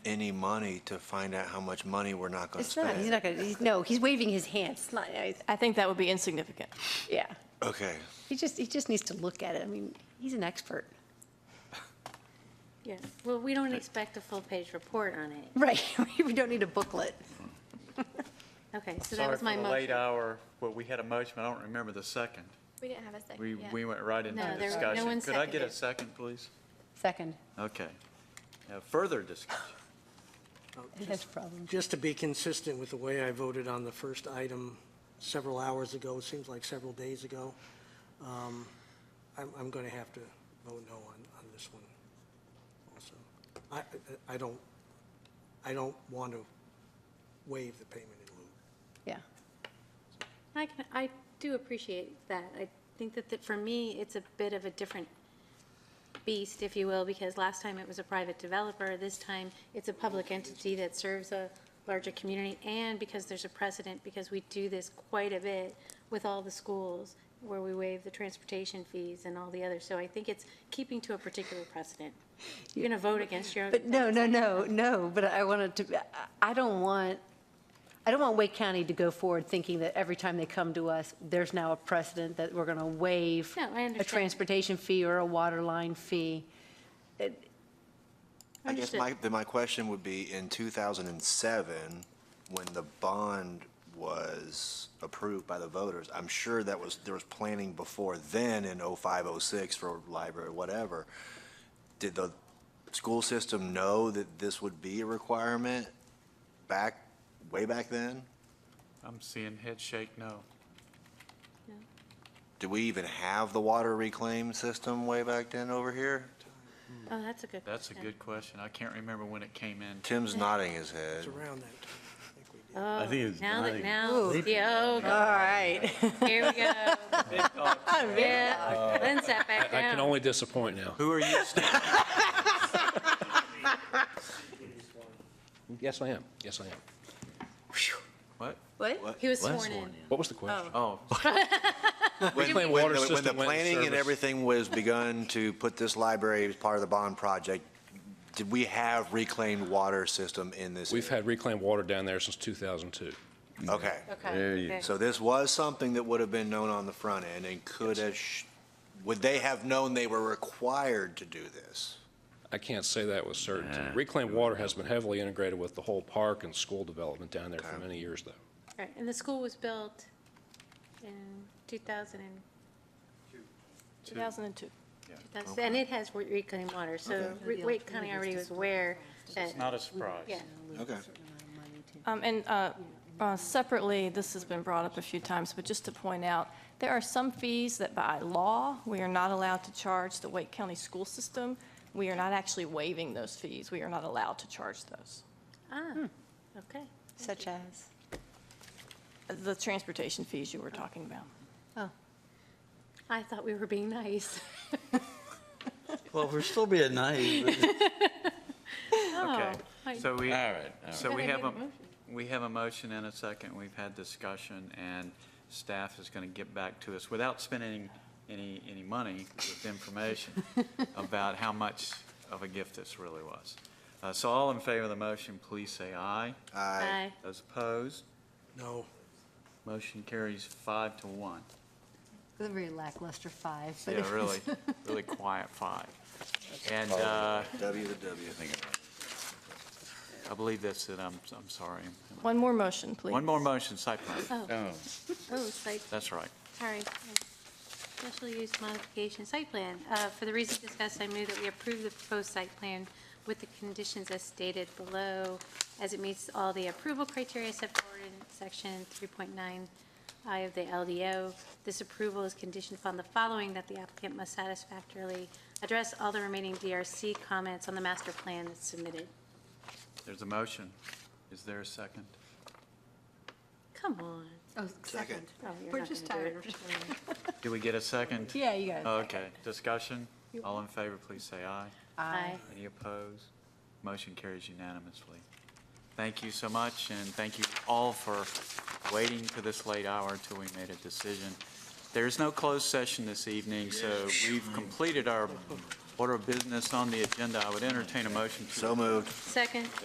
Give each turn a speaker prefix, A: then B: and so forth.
A: any money to find out how much money we're not going to
B: It's not, he's
A: spend.
B: not gonna, he's, no, he's waving his hand. It's not, I-
C: I think that would be insignificant.
B: yeah.
A: Okay,
B: He just, he just needs to look at it. I mean, he's an expert.
D: Yes, well, we don't expect a full-page report on it.
B: Right, we don't need a booklet.
D: Okay, so that was my
E: Sorry for the late
D: motion.
E: hour, but we had a motion, but I don't remember the second.
F: We didn't have a second
E: We,
F: yet.
E: we went right into
D: No, there- no
E: discussion.
D: one
E: Could I get a
D: seconded.
E: second, please?
B: Second,
E: Okay. Now, Further discussion.
B: that's a problem.
G: Just to be consistent with the way I voted on the first item several hours ago, seems like several days ago, um, I'm, I'm going to have to vote no on, on this one also. I, I- I don't, I don't want to waive the payment in lieu.
B: Yeah,
D: I can, I do appreciate that. I think that, that for me, it's a bit of a different beast, if you will, because last time it was a private developer, this time it's a public entity that serves a larger community, and because there's a precedent, because we do this quite a bit with all the schools, where we waive the transportation fees and all the others. So I think it's keeping to a particular precedent. You're going to vote against your own.
B: but no, no, no, no, but I wanted to, I- I don't want, I don't want Wake County to go forward thinking that every time they come to us, there's now a precedent that we're gonna waive
D: No, I
B: a
D: understand.
B: transportation fee or a water line fee.
A: I guess
D: Understood.
A: my, then my question would be, in 2007, when the bond was approved by the voters, I'm sure that was, there was planning before then in 05, 06 for library, whatever. Did the school system know that this would be a requirement back, way back then?
E: I'm seeing head shake no.
A: Do we even have the water reclaim system way back then over here?
D: Oh, that's a good.
E: That's a
D: question.
E: good question. I can't remember when it came in.
A: Tim's nodding his head.
G: It's around that time, I think we did.
D: Oh,
H: think it's
D: Now that,
H: dying.
D: now, yeah,
B: All right.
D: oh, here we go. Yeah, then sat back
I: I can
D: down.
I: only disappoint now.
E: Who are you, Steve?
I: Yes, I am. Yes, I am.
E: What?
B: What?
D: He was
H: Last
D: sworn in.
H: one, yeah.
I: What was the question?
E: Oh,
A: When,
I: Reclaim
A: when
I: water
A: the- when the
I: system went in
A: planning and
I: service.
A: everything was begun to put this library as part of the bond project, did we have reclaimed water system in this?
I: We've had reclaimed water down there since 2002.
A: Okay.
H: There you
D: Okay.
A: So this was something that would have been known on the front end and could have, sh- would they have known they were required to do this?
I: I can't say that with certainty.
H: Nah.
I: Reclaimed water has been heavily integrated with the whole park and school development down there for many years, though.
D: Right, And the school was built in 2000 and,
C: 2002.
D: 2000 and it has re- reclaimed water, so re- Wake County already was aware that,
E: not a surprise.
D: yeah.
A: Okay.
C: Um, And uh, uh, separately, this has been brought up a few times, but just to point out, there are some fees that by law, we are not allowed to charge the Wake County school system. We are not actually waiving those fees. We are not allowed to charge those.
D: Ah, okay.
B: Such as?
C: The transportation fees you were talking about.
D: I thought we were being nice.
H: Well, we're still being naive.
D: Oh, I-
E: Okay. So we,
H: All right, all right.
E: so we
D: I
E: have
D: made
E: a,
D: a motion.
E: we have a motion and a second. We've had discussion, and staff is going to get back to us without spending any, any money with information about how much of a gift this really was. Uh, So all in favor of the motion, please say aye.
A: I,
D: Aye.
E: Those opposed,
G: No,
E: motion carries five to one.
B: It was a very lackluster five, but.
E: Yeah, really, really quiet five.
H: Oh.
E: And uh,
A: W the W.
E: I believe that's it. I'm, I'm sorry.
C: One more motion, please.
E: One more motion, site plan.
H: Oh.
D: Oh, site
E: That's right.
D: Sorry. Special use modification site plan. Uh, For the reasons discussed, I move that we approve the proposed site plan with the conditions as stated below, as it meets all the approval criteria set forward in section 3.9I of the LDO. This approval is conditioned upon the following, that the applicant must satisfactorily address all the remaining DRC comments on the master plan that's submitted.
E: There's a motion. Is there a second?
D: Come on.
B: Oh,
A: Second.
D: Oh, you're
B: We're
D: not
B: just
D: gonna do
B: tired.
D: it.
E: Do we get a second?
B: Yeah, you got it.
E: Okay, discussion? All in favor, please say aye.
D: Aye.
E: Any opposed? Motion carries unanimously. Thank you so much, and thank you all for waiting to this late hour until we made a decision. There is no closed session this evening, so we've completed our order of business on the agenda. I would entertain a motion to
A: So moved.
D: Second.